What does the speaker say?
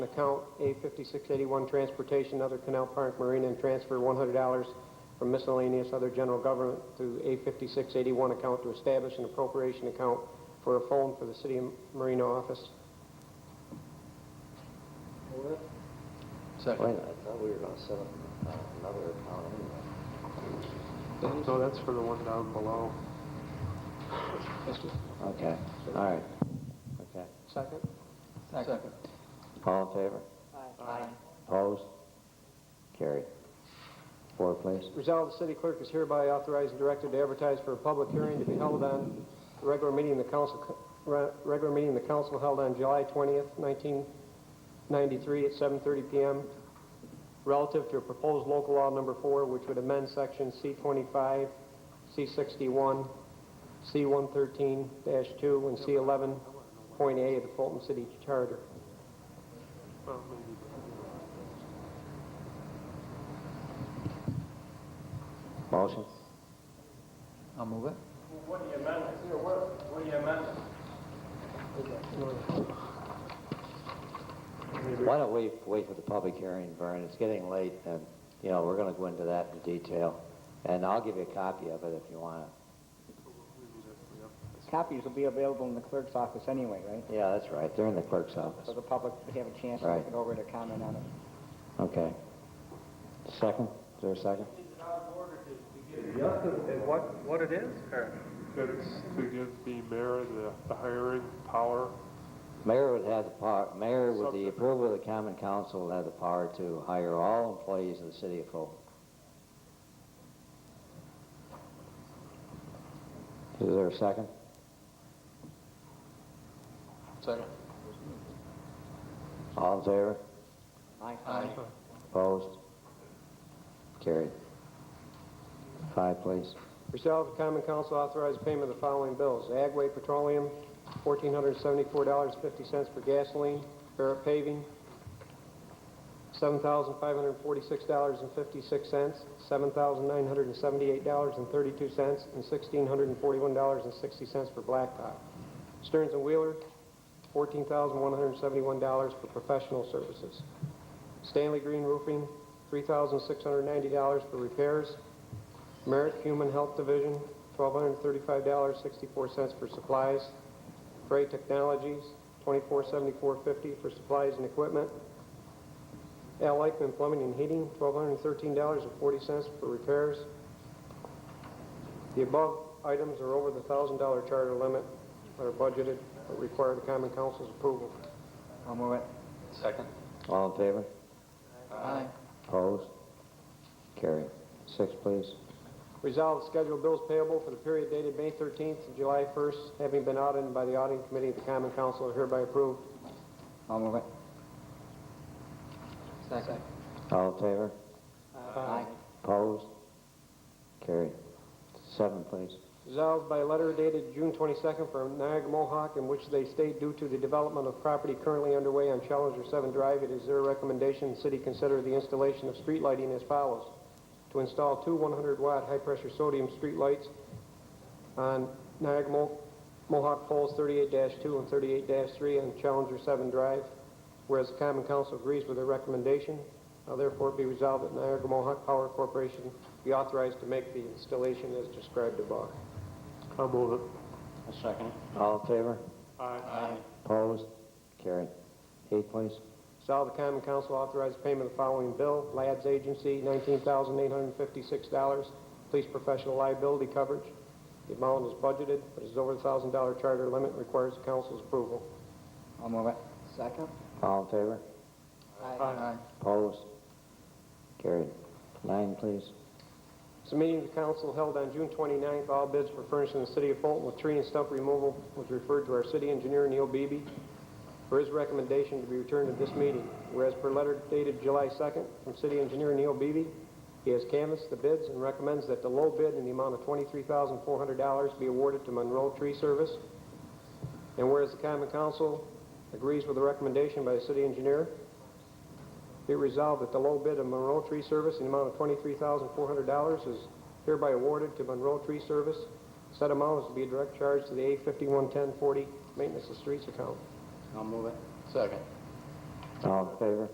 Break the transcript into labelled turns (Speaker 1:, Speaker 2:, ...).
Speaker 1: Account A fifty-six eighty-one, transportation, other Canal Park Marina, and transfer one hundred dollars from miscellaneous other general government to A fifty-six eighty-one account to establish an appropriation account for a phone for the city of Marina office.
Speaker 2: Wait a
Speaker 3: Second.
Speaker 2: minute, I thought we were gonna set up uh, another account anyway.
Speaker 4: No, that's for the one down below.
Speaker 2: Okay, all right, okay.
Speaker 1: Second?
Speaker 3: Second.
Speaker 2: All in favor? Opposed? Carried. Four, please.
Speaker 1: Resolved, the city clerk is hereby authorized and directed to advertise for a public hearing to be held on the regular meeting of the council, re- regular meeting of the council held on July 20th, 1993 at 7:30 PM relative to a proposed local law number four, which would amend section C-25, C-61, C-113-2, and C-11.A of the Fulton City Charter.
Speaker 2: Motion?
Speaker 3: I'll move it.
Speaker 5: What do you amend it? What do you amend it?
Speaker 2: Why don't we wait for the public hearing, Vern? It's getting late, and, you know, we're gonna go into that in detail. And I'll give you a copy of it if you wanna.
Speaker 6: Copies will be available in the clerk's office anyway, right?
Speaker 2: Yeah, that's right, they're in the clerk's office.
Speaker 6: So the public would have a chance to
Speaker 2: Right.
Speaker 6: look it over to comment on it.
Speaker 2: Okay. Second? Is there a second?
Speaker 7: What, what it is, or?
Speaker 4: That it's to give the mayor the, the hiring power.
Speaker 2: Mayor would have the power, mayor with the approval of the common council would have the power to hire all employees of the city of Fulton. Is there a second?
Speaker 3: Second.
Speaker 2: All in favor?
Speaker 3: Aye.
Speaker 2: Opposed? Carried. Five, please.
Speaker 1: Resolved, the common council authorized payment of the following bills. Agway Petroleum, fourteen hundred seventy-four dollars fifty cents for gasoline. Barrett Paving, seven thousand five hundred forty-six dollars and fifty-six cents, seven thousand nine hundred and seventy-eight dollars and thirty-two cents, and sixteen hundred and forty-one dollars and sixty cents for Blacktop. Stearns and Wheeler, fourteen thousand one hundred seventy-one dollars for professional services. Stanley Green Roofing, three thousand six hundred ninety dollars for repairs. Merritt Human Health Division, $1,235.64 for supplies. Gray Technologies, $2474.50 for supplies and equipment. Al Likeman Plumbing and Heating, $1,213.40 for repairs. The above items are over the $1,000 charter limit that are budgeted but require the common council's approval.
Speaker 6: I'll move it.
Speaker 3: Second.
Speaker 2: All in favor?
Speaker 3: Aye.
Speaker 2: Opposed? Carried. Six, please.
Speaker 1: Resolved, schedule bills payable for the period dated May 13th to July 1st, having been audited by the auditing committee of the common council, are hereby approved.
Speaker 6: I'll move it.
Speaker 3: Second.
Speaker 2: All in favor?
Speaker 1: Uh,
Speaker 6: Aye.
Speaker 2: Opposed? Carried. Seven, please.
Speaker 1: Resolved by letter dated June 22nd from Niagara Mohawk, in which they state due to the development of property currently underway on Challenger 7 Drive, it is their recommendation the city consider the installation of street lighting as follows. To install two 100-watt high-pressure sodium street lights on Niagara Mo- Mohawk poles 38-2 and 38-3 on Challenger 7 Drive, whereas the common council agrees with their recommendation. Now therefore be resolved that Niagara Mohawk Power Corporation be authorized to make the installation as described above.
Speaker 4: I'll move it.
Speaker 3: Second.
Speaker 2: All in favor?
Speaker 4: Aye.
Speaker 3: Aye.
Speaker 2: Opposed? Carried. Eight, please.
Speaker 1: Resolve the common council authorize payment of the following bill. Lads Agency, $19,856. Police professional liability coverage. The amount is budgeted, but is over the $1,000 charter limit and requires the council's approval.
Speaker 6: I'll move it. Second?
Speaker 2: All in favor?
Speaker 3: Aye.
Speaker 2: Opposed? Carried. Nine, please.
Speaker 1: This meeting of the council held on June 29th. All bids for furnishing the city of Fulton with tree and stump removal was referred to our city engineer, Neil Beebe, for his recommendation to be returned at this meeting. Whereas per letter dated July 2nd from city engineer Neil Beebe, he has canvassed the bids and recommends that the low bid in the amount of $23,400 be awarded to Monroe Tree Service. And whereas the common council agrees with the recommendation by the city engineer, be it resolved that the low bid of Monroe Tree Service in the amount of $23,400 is hereby awarded to Monroe Tree Service. Said amount is to be a direct charge to the A511040 Maintenance of Streets account.
Speaker 6: I'll move it.
Speaker 3: Second.
Speaker 2: All in favor?